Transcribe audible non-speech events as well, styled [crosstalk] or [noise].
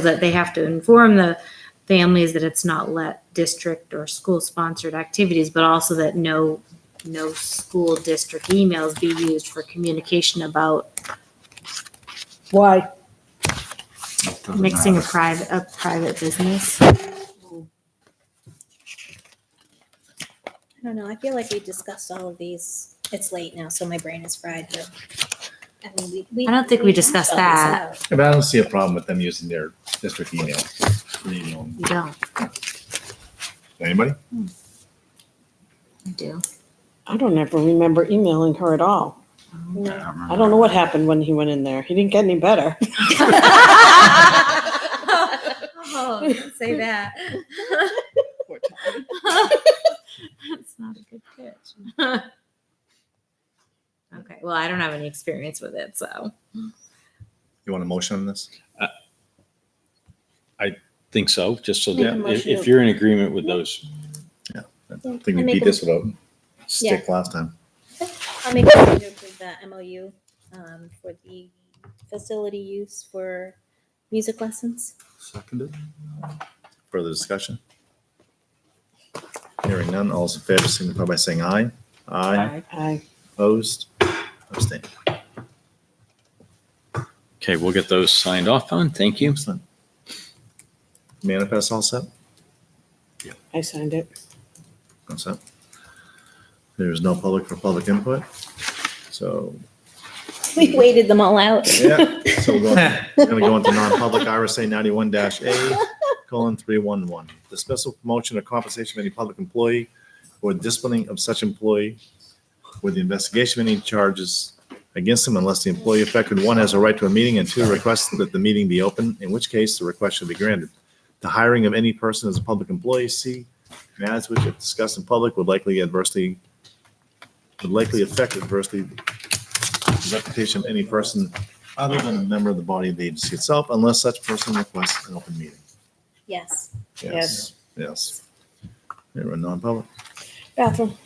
that they have to inform the families that it's not let district or school sponsored activities, but also that no, no school district emails be used for communication about Why? Doesn't mixing a matter. private, a private business. I don't know. I feel like we discussed all of these. It's late now, so my brain is fried. But I mean, we. we I don't think we discussed hashed all this out. Yeah, But I don't see a problem with them using their district email. You know, You don't, Anybody? you [laughs] do. I don't ever remember emailing her at all. No. I don't know what happened when he went in there. He didn't get any better. [laughs] Oh, don't [laughs] say that. That's not a good pitch. [laughs] Okay, well, I don't have any experience with it, so. You want a motion on this? think so, just so Make a that if, motion if to- you're in agreement with those, I Yeah, think we I make beat a- this without stick last time. I'll make a motion to approve the MOU um, for the facility use for music lessons. Seconded. Further discussion? Hearing none, all those in favor signify by saying aye. Aye. [laughs] I, Opposed? Abstain. okay, we'll get those signed off on. Thank you. Excellent. Manifest all set? I signed it. All set. There's no public for public input. So, We waited them all out. yeah, [laughs] so we're going We're gonna go into non-public RSA ninety-one A colon three one one. Dismissal, promotion, or compensation of any public employee or disciplining of such employee with the investigation of any charges against him unless the employee affected, one, has a right to a meeting, and two, requests that the meeting be open, in which case the request should be granted. The hiring of any person as a public employee, C, matters which if discussed in public would likely adversely, would likely affect adversely the reputation of any person other than a member of the body of the agency itself, unless such person requests an open meeting. Yes. Yes. Yes. They were non-public. Bathroom.